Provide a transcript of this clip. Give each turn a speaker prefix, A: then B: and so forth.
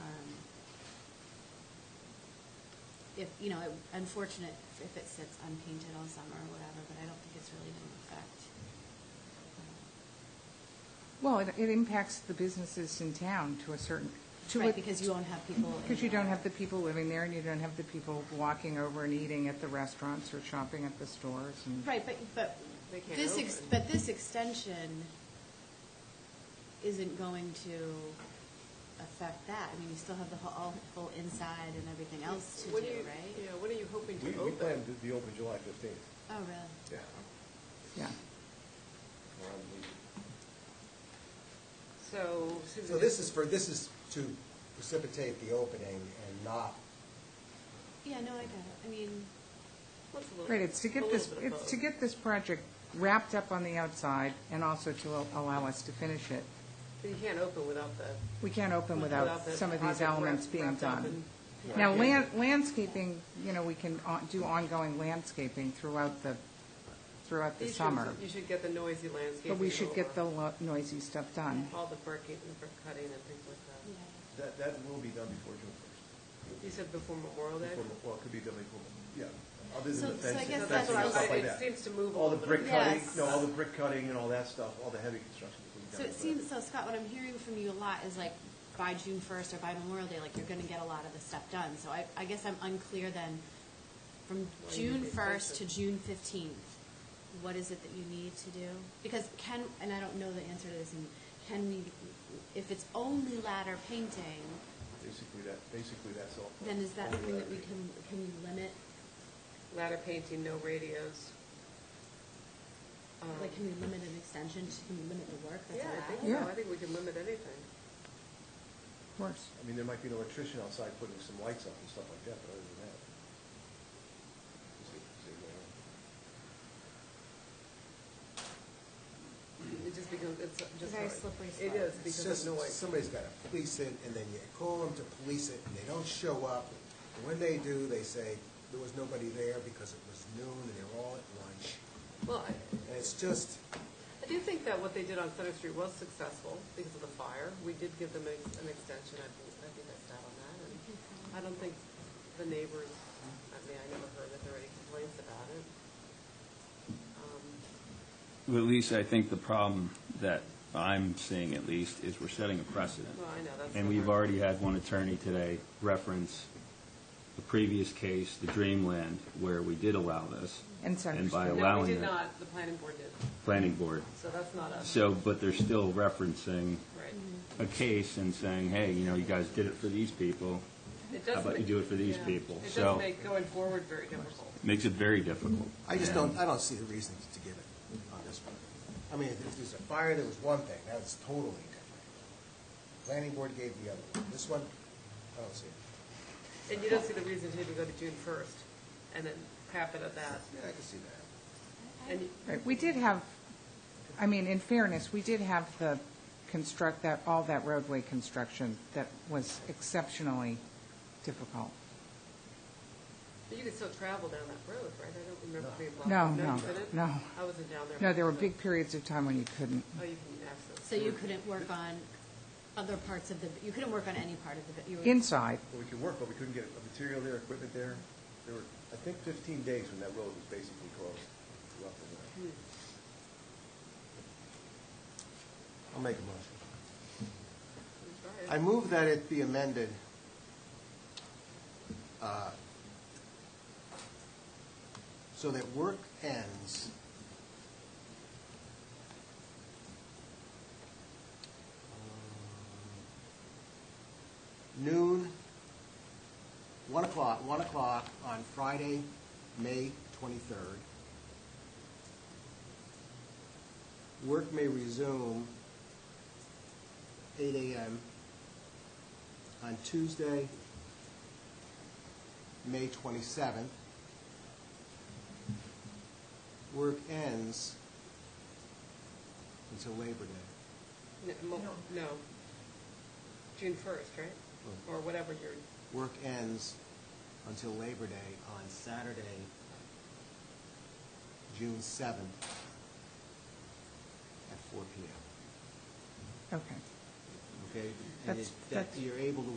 A: Um, if, you know, it- unfortunate if it sits unpainted all summer or whatever, but I don't think it's really going to affect. uh,
B: Well, it, it impacts the businesses in town to a certain, to
A: Right,
B: a,
A: because you won't have people. in
B: because you
A: there.
B: don't have the people living there, and you don't have the people walking over and eating at the restaurants or shopping at the stores, and
A: Right, but, but
C: They can't
A: this, ex-
C: open.
A: but this extension isn't going to affect that. I mean, you still have the whole, all- whole inside and everything else to do,
C: What
A: right?
C: are you- Yeah, what are you hoping
D: We,
C: to
D: we plan
C: open?
D: to be open July fifteenth.
A: Oh, really?
D: Yeah.
B: yeah.
D: We're on leave.
C: So
E: So
C: Susan.
E: this is for, this is to precipitate the opening and not,
A: Yeah, no, I get it. I mean,
C: what's a little-
B: Right, it's to
C: a
B: get
C: little
B: this,
C: bit of
B: it's to
C: both.
B: get this project wrapped up on the outside, and also to al- allow us to finish it.
C: But you can't open without the.
B: We can't open without
C: the
B: some of
C: project
B: these elements
C: wrap-
B: being
C: wrapped up
B: done.
C: and-
B: Now, land, landscaping, you know, we can on- do ongoing landscaping throughout the, throughout the
C: You should-
B: summer,
C: You should get the noisy landscaping.
B: but we should get the
C: over.
B: lo- noisy stuff done.
C: All the bricking and brick cutting and things like that.
A: yeah.
D: That, that will be done before June first.
C: You said before Memorial Day?
D: Well, it could be done before, yeah, other
A: So-
D: than the
A: so I guess
D: fencing, fencing
A: that's
D: and
A: what I-
D: stuff like
C: it
D: that.
C: seems to move a
D: All the
C: little
D: brick
C: bit.
D: cutting,
A: Yes.
D: no, all the brick cutting and all that stuff, all the heavy construction. will be
A: So
D: done,
A: it
D: but-
A: seems, so Scott, what I'm hearing from you a lot is like by June first or by Memorial Day, like you're gonna get a lot of the stuff done. So I, I guess I'm unclear then, from
C: Well, you
A: June
C: need to
A: first to
C: finish it.
A: June fifteenth, what is it that you need to do? Because can, and I don't know the answer to this, and can we, if it's only ladder painting,
D: Basically, that, basically, that's all.
A: then is that
D: all
A: something that
D: that
A: we
D: we-
A: can, can we limit?
C: Ladder painting, no radios. Um,
A: Like, can we limit an extension, to- can we limit the work that's
C: Yeah,
A: allowed?
C: I think
B: Yeah.
C: so. I think we can limit anything.
B: Of course.
D: I mean, there might be an electrician outside putting some lights up and stuff like that, but other than that. is it- is it, uh,
C: It just becomes, it's just.
A: Very slippery
C: It
A: slope.
C: is
E: it's
C: because
E: just,
C: of noise.
E: somebody's gotta police it, and then you call them to police it, and they don't show up. And When they do, they say, there was nobody there because it was noon and they were all at lunch.
C: Well, I,
E: And it's just,
C: I do think that what they did on Center Street was successful because of the fire. We did give them ex- an extension, I think, I think I sat on that. And I don't think the neighbors, I mean, I never heard that there were any complaints about it. Um,
F: Well, at least I think the problem that I'm seeing at least is we're setting a precedent.
C: Well, I know, that's.
F: And
C: the
F: we've
C: hard-
F: already had one attorney today reference the previous case, the Dreamland, where we did allow this,
B: And so.
F: And by
C: No, we
F: allowing
C: did
F: it.
C: not, the planning board did,
F: planning board.
C: so that's not us,
F: So, but they're still referencing
C: right.
F: a case and saying, hey, you know, you guys did it for these people.
C: It does
F: How about you
C: make-
F: do it for these
C: yeah.
F: people?
C: It
F: So-
C: does make going forward very difficult.
F: Makes it very difficult.
E: I just
F: And-
E: don't, I don't see the reason to give it on this one. I mean, if there's a fire, there was one thing, that's totally different. Planning board gave the other one. This one, I don't see it.
C: And you don't see the reason to even go to June first and then cap it at that.
E: Yeah, I can see that.
C: And
B: Right, we did have, I mean, in fairness, we did have the construct, that, all that roadway construction that was exceptionally difficult.
C: But you could still travel down that road, right? I don't remember being blocked.
B: No, no,
C: you couldn't?
B: no.
C: I wasn't down there.
B: No, there were big periods of time when you couldn't.
C: Oh, you can access.
A: So you couldn't work on other parts of the, you couldn't work on any part of the, you were.
B: Inside,
D: Well, we could work, but we couldn't get a material there, equipment there. There were, I think, fifteen days when that road was basically closed throughout the winter.
E: I'll make a motion.
C: Sorry.
E: I move that it be amended uh, so that work ends um, noon, 1 o'clock, 1 o'clock on Friday, May 23rd. Work may resume 8 AM on Tuesday, May 27th. Work ends until Labor Day.
C: N- mo- No. June first, right? Or whatever your,
E: Work ends until Labor Day on Saturday, June 7th at 4 PM.
B: okay.
E: Okay? And
B: That's-
E: it- that
B: that's-
E: you're able to